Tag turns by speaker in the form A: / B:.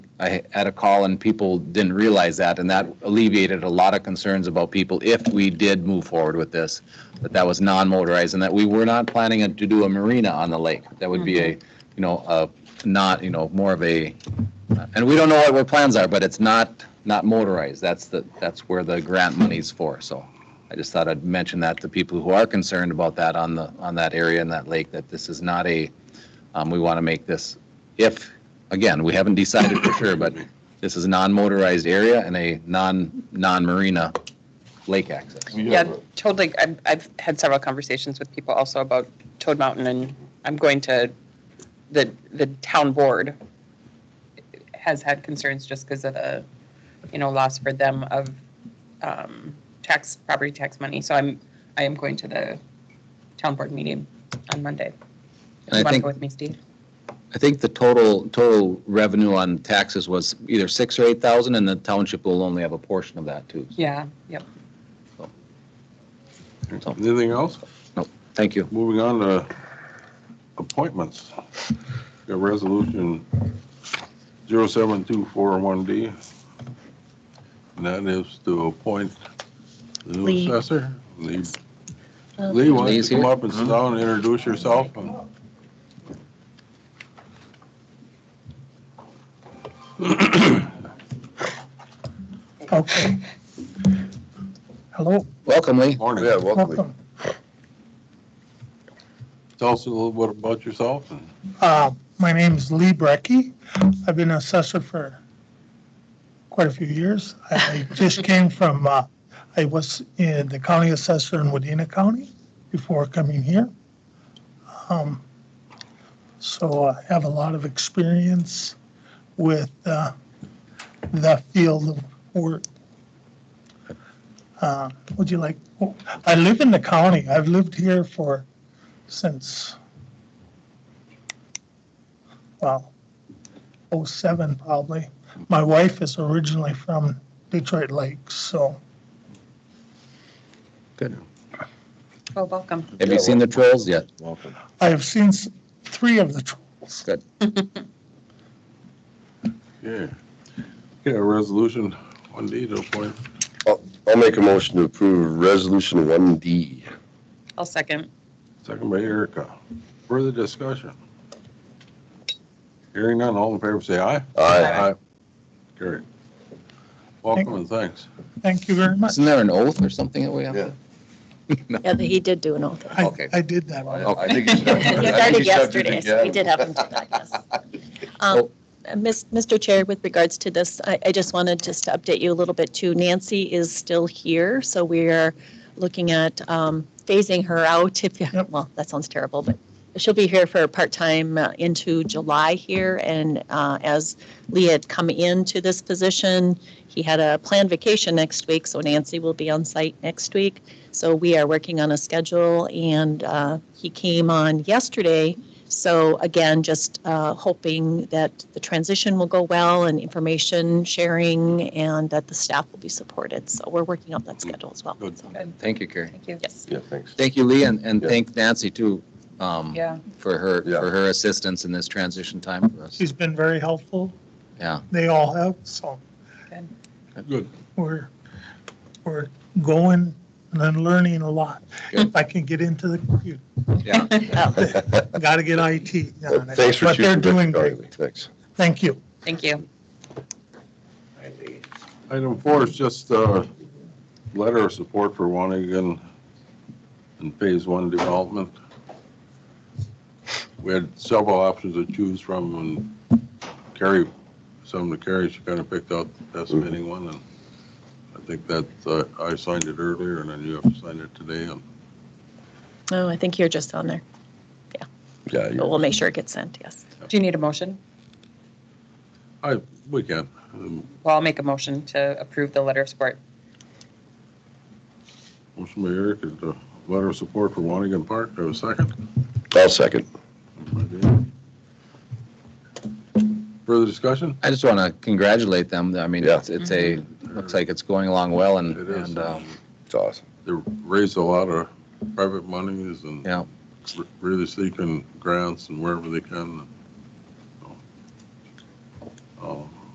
A: I had a call and people didn't realize that, and that alleviated a lot of concerns about people if we did move forward with this, that that was non-motorized and that we were not planning to do a marina on the lake. That would be a, you know, a, not, you know, more of a, and we don't know what our plans are, but it's not, not motorized. That's the, that's where the grant money's for, so. I just thought I'd mention that to people who are concerned about that on the, on that area and that lake, that this is not a, um, we want to make this, if, again, we haven't decided for sure, but this is a non-motorized area and a non, non-marina lake access.
B: We
C: Yeah,
B: have a-
C: totally. I've, I've had several conversations with people also about Toad Mountain and I'm going to, the, the town board has had concerns just because of the, you know, loss for them of um, tax, property tax money. So I'm, I am going to the town board meeting on Monday.
A: And I
C: If you want to
A: think-
C: go with me, Steve?
A: I think the total, total revenue on taxes was either six or eight thousand and the township will only have a portion of that too.
C: Yeah, yep.
A: So,
B: Anything else?
A: Thank you.
B: Moving on to appointments. Got resolution 07241D. And that is to appoint the
D: Lee.
B: new assessor. Lee,
D: Uh,
B: Lee, why don't you
A: Lee's
B: come
A: here.
B: up and sit down and introduce yourself? and-
E: Okay. Hello,
A: Welcome, Lee.
B: Morning.
F: Yeah, welcome.
E: welcome.
B: Tell us a little bit about yourself and
E: Uh, My name's Lee Brecky. I've been an assessor for quite a few years. I I just came from, uh, I was in the county assessor in Wadena County before coming here. Um, So I have a lot of experience with uh, the field of work. Uh, Would you like, I live in the county. I've lived here for, since well, '07 uh, probably. My wife is originally from Detroit Lakes, so
C: Well, Oh, welcome.
A: Have you seen the trolls yet?
F: Welcome.
E: I have seen s- three of the trolls.
A: Good.
B: Yeah. Okay, resolution one D to appoint.
F: I'll make a motion to approve Resolution 1D.
C: I'll second.
B: Second by Erica. Further discussion? Hearing none, all in favor say aye.
F: Aye.
B: Carried. Welcome and thanks.
E: Thank you very much.
A: Isn't there an oath or something that we have? to-
D: Yeah, he did do an oath.
E: I,
A: Okay.
E: I did that one.
A: Okay.
F: think he's- I
D: He started
F: think he's got to do
D: yesterday,
F: it
D: so we
F: again.
D: did have him do that, yes. Um, uh, Miss- Mr. Chair, with regards to this, I I just wanted just to update you a little bit too. Nancy is still here, so we are looking at um, phasing her out if, you-
E: Yep.
D: well, that sounds terrible, but she'll be here for part-time uh, into July here. And uh, as Lee had come into this position, he had a planned vacation next week, so Nancy will be on site next week. So we are working on a schedule, and uh, he came on yesterday. So again, just uh, hoping that the transition will go well and information sharing and that the staff will be supported. So we're working out that schedule as well.
B: Good.
D: So,
A: Thank you, Carrie.
C: Thank you.
D: Yes.
F: Yeah, thanks.
A: Thank you, Lee, and, and
F: Yeah.
A: thank Nancy too, um,
C: Yeah.
A: for her,
F: Yeah.
A: for her assistance in this transition time for us.
E: She's been very helpful.
A: Yeah.
E: They all have, so
B: Good.
E: we're, we're going and then learning a lot.
A: Good.
E: If I can get into the computer,
A: Yeah.
D: Oh,
E: got to get IT on it.
F: Thanks for
E: But they're
F: choosing.
E: doing
F: Rick
E: great.
F: Darby. Thanks.
E: Thank you.
C: Thank you.
B: Item four is just a letter of support for Wanigan and Phase One development. We had several options to choose from and Carrie, some to Carrie, she kind of picked out the best
F: Mm-hmm.
B: fitting one and I think that, uh, I signed it earlier and then you have to sign it today and
D: Oh, I think you're just on there,
F: Yeah,
D: but
F: you-
D: we'll make sure it gets sent, yes.
C: Do you need a motion?
B: I, we can. Um,
C: Well, I'll make a motion to approve the letter of support.
B: Motion by Eric is the letter of support for Wanigan Park. Do I have a second?
F: I'll second.
B: Further discussion?
A: I just want to congratulate them. I mean,
F: Yeah.
A: it's, it's a,
B: Mm-hmm.
A: looks like it's going along well and,
B: It is.
A: and, um,
F: It's awesome.
B: They raised a lot of private monies and
A: yeah.
B: re- really seeking grants and wherever they can. so. Um,